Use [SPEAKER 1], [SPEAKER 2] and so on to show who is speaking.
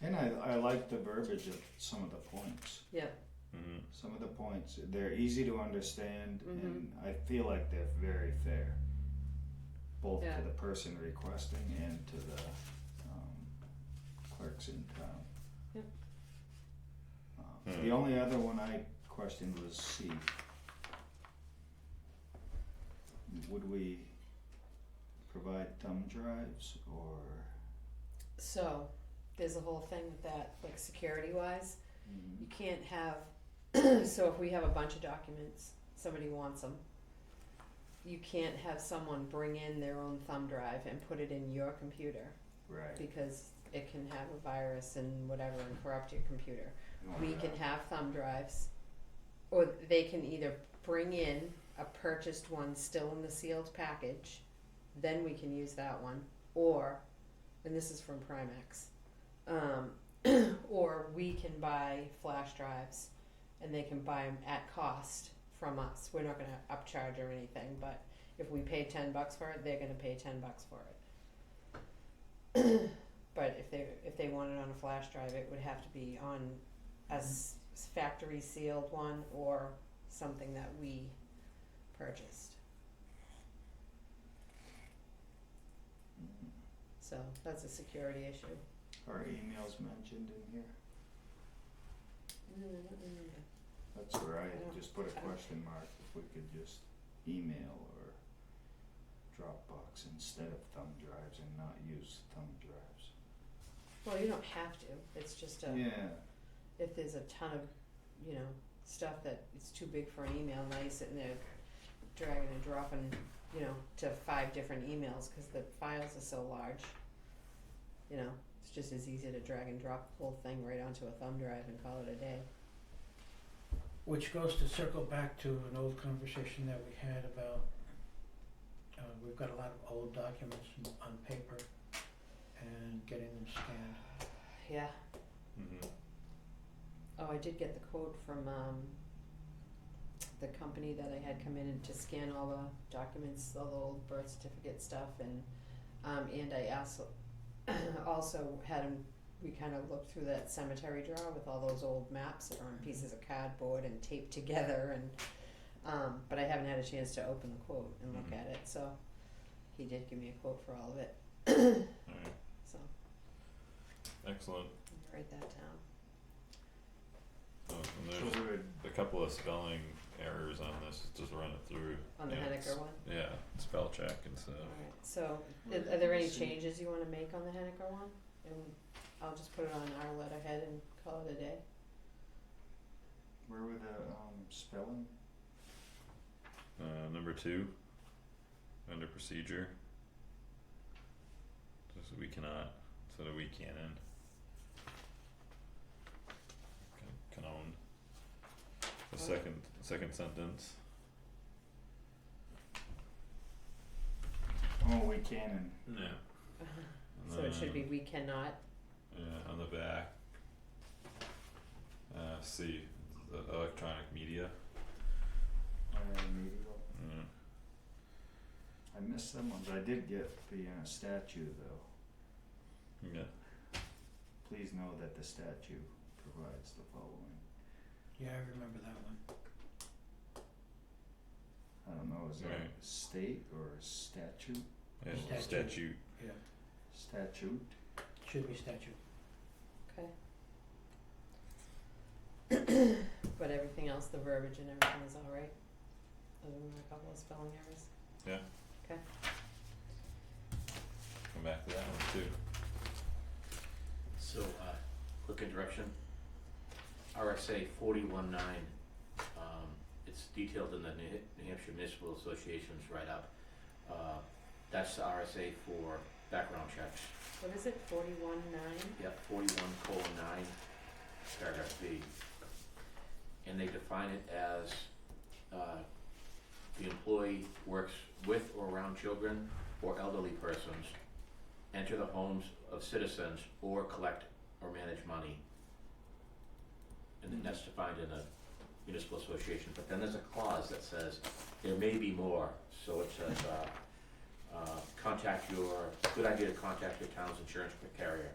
[SPEAKER 1] And I, I like the verbiage of some of the points.
[SPEAKER 2] Yeah.
[SPEAKER 3] Mm-hmm.
[SPEAKER 1] Some of the points, they're easy to understand,
[SPEAKER 2] Mhm.
[SPEAKER 1] and I feel like they're very fair, both
[SPEAKER 2] Yeah.
[SPEAKER 1] to the person requesting and to the um, clerks in town.
[SPEAKER 2] Yep.
[SPEAKER 1] Um,
[SPEAKER 3] Hmm.
[SPEAKER 1] The only other one I questioned was C. Would we provide thumb drives or?
[SPEAKER 2] So, there's a whole thing with that, like security wise, you can't have, so if we have a bunch of documents, somebody wants them. You can't have someone bring in their own thumb drive and put it in your computer
[SPEAKER 1] Right.
[SPEAKER 2] because it can have a virus and whatever and corrupt your computer.
[SPEAKER 1] you want
[SPEAKER 2] We
[SPEAKER 1] that.
[SPEAKER 2] can have thumb drives, or they can either bring in a purchased one still in the sealed package, then we can use that one, or, and this is from Primex, um, or we can buy flash drives, and they can buy them at cost from us. We're not gonna upcharge or anything, but if we pay ten bucks for it, they're gonna pay ten bucks for it. But if they, if they want it on a flash drive, it would have to be on a s- factory sealed one or something that we purchased.
[SPEAKER 1] Mhm.
[SPEAKER 2] So that's a security issue.
[SPEAKER 1] Are emails mentioned in here? That's where I
[SPEAKER 2] Yeah.
[SPEAKER 1] just put a
[SPEAKER 2] Okay.
[SPEAKER 1] question mark, if we could just email or Dropbox instead of thumb drives and not use thumb drives.
[SPEAKER 2] Well, you don't have to. It's just a
[SPEAKER 1] Yeah,
[SPEAKER 2] if there's a ton of you know stuff that it's too big for an email. Now you're sitting there dragging and dropping you know to five different emails because the files are so large. You know, it's just as easy to drag and drop the whole thing right onto a thumb drive and call it a day.
[SPEAKER 4] Which goes to circle back to an old conversation that we had about, uh, we've got a lot of old documents on paper and getting them scanned.
[SPEAKER 2] Yeah.
[SPEAKER 3] Mm-hmm.
[SPEAKER 2] Oh, I did get the quote from um the company that I had come in to scan all the documents, all the old birth certificate stuff and um and I also also had him we kind of looked through that cemetery drawer with all those old maps that are on pieces of cardboard and taped together and um but I haven't had a chance to open the quote and look
[SPEAKER 3] Mhm.
[SPEAKER 2] at it, so he did give me a quote for all of it,
[SPEAKER 3] All right.
[SPEAKER 2] so
[SPEAKER 3] Excellent.
[SPEAKER 2] I'll write that down.
[SPEAKER 3] Oh, and
[SPEAKER 1] so
[SPEAKER 3] there's
[SPEAKER 1] we would,
[SPEAKER 3] a couple of spelling errors on this. Just run it through.
[SPEAKER 2] On the
[SPEAKER 3] Yeah, Oh.
[SPEAKER 2] Hennecker
[SPEAKER 3] it's-
[SPEAKER 2] one?
[SPEAKER 3] Yeah, spell check and stuff.
[SPEAKER 2] Alright, so
[SPEAKER 1] Well,
[SPEAKER 2] are, are there any
[SPEAKER 1] see.
[SPEAKER 2] changes you wanna make on the Hennecker one? And I'll just put it on our letterhead and call it a day.
[SPEAKER 1] where were the um spelling?
[SPEAKER 3] Uh, number two, under procedure. Just we cannot, so that we can in. Can- Canon. The
[SPEAKER 2] What?
[SPEAKER 3] second, second sentence,
[SPEAKER 1] Oh, we can
[SPEAKER 3] yeah. And
[SPEAKER 2] So it should be
[SPEAKER 3] then,
[SPEAKER 2] we cannot,
[SPEAKER 3] Yeah, on the back. Uh, C, the electronic media,
[SPEAKER 1] and, uh, medieval.
[SPEAKER 3] yeah,
[SPEAKER 1] I missed some ones, I did get the uh statue though.
[SPEAKER 3] yeah,
[SPEAKER 1] Please know that the statue provides the following.
[SPEAKER 4] Yeah, I remember that one.
[SPEAKER 1] I don't know, is that
[SPEAKER 3] Right.
[SPEAKER 1] state or statute,
[SPEAKER 3] yeah,
[SPEAKER 4] Statute.
[SPEAKER 3] statute,
[SPEAKER 4] Yeah,
[SPEAKER 1] statute?
[SPEAKER 4] should be statute.
[SPEAKER 2] okay? But everything else, the verbiage and everything is alright, other than a couple of spelling errors.
[SPEAKER 3] come back to that one too.
[SPEAKER 5] So, uh, quick interruption. RSA forty-one nine, um, it's detailed in the New New Hampshire Municipal Association's write-up. Uh, that's the RSA for background checks.
[SPEAKER 2] What is it, forty-one nine?
[SPEAKER 5] Yep, forty-one colon nine, paragraph B. And they define it as, uh, the employee works with or around children or elderly persons, enter the homes of citizens, or collect or manage money. And then that's defined in a municipal association, but then there's a clause that says, there may be more, so it says, uh, uh, contact your, good idea to contact your town's insurance carrier